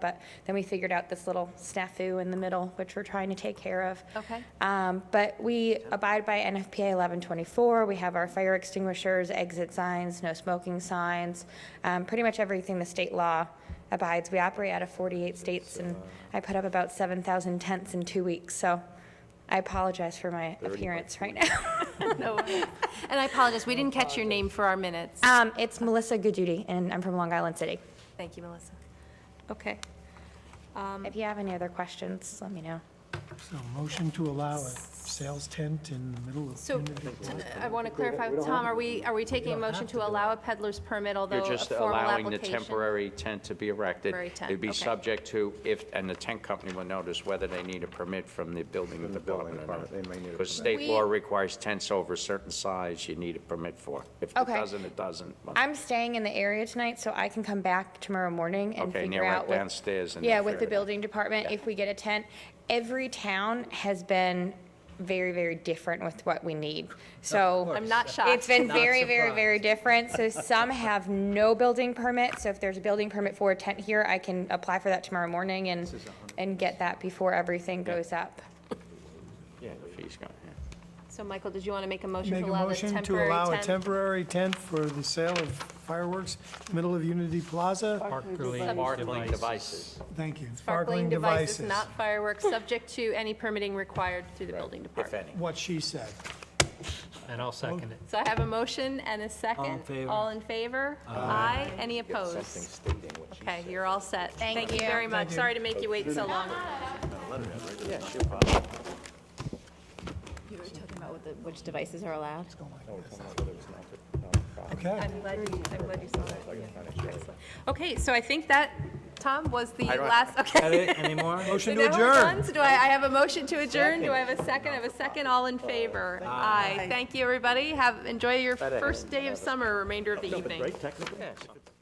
but then we figured out this little snafu in the middle, which we're trying to take care of. Okay. Um, But we abide by NFPA 1124. We have our fire extinguishers, exit signs, no smoking signs, um, pretty much everything the state law abides. We operate out of 48 states, and I put up about 7,000 tents in two weeks, so I apologize for my appearance right now. No worries. And I apologize, we didn't catch your name for our minutes. Um, It's Melissa Gooduty, and I'm from Long Island City. Thank you, Melissa. Okay. Um, If you have any other questions, let me know. So motion to allow a sales tent in the middle of. So I want to clarify with Tom, are we, are we taking a motion to allow a peddler's permit, although You're a just formal allowing application? the temporary tent to be erected. Temporary tent, It'd be okay. subject to if, and the tent company will notice whether they need a permit from the building the building department or not. department, they may need a Because permit. state law We- requires tents over a certain size you need a permit for. If it Okay. doesn't, it doesn't. I'm staying in the area tonight, so I can come back tomorrow morning and Okay, and figure you're out right with- downstairs and Yeah, you'll with the figure it out. building department, if we get a tent. Every town has been very, very different with what we need, so. I'm not shocked. It's been Not very, very, surprised. very different, so some have no building permit, so if there's a building permit for a tent here, I can apply for that tomorrow morning and, and get that before everything goes up. Yeah, the fee's gone, yeah. So Michael, did you want to make a motion Make to a allow the motion to allow temporary a tent? temporary tent for the sale of fireworks, middle of Unity Plaza. Sparkling devices. Thank you. Sparkling devices, not fireworks, subject to any permitting required through the building If department. any. What she said. And I'll second it. So I have a motion and a second. All in favor. All in favor? Aye. Any opposed? Okay, you're all set. Thank Thank you you. very much. Thank you. Sorry to make you wait so long. You were talking about what the, which devices are allowed? Okay. I'm glad you, I'm glad you saw that. Yeah, excellent. Okay, so I think that, Tom, was the don't- last, Any okay. any more? So Motion to now we're done. adjourn. So do I, I have a motion to adjourn? Do I have a second? I have a second. All in favor? Aye. Thank you, everybody. Have, enjoy your first day of summer, remainder of the evening. Yes.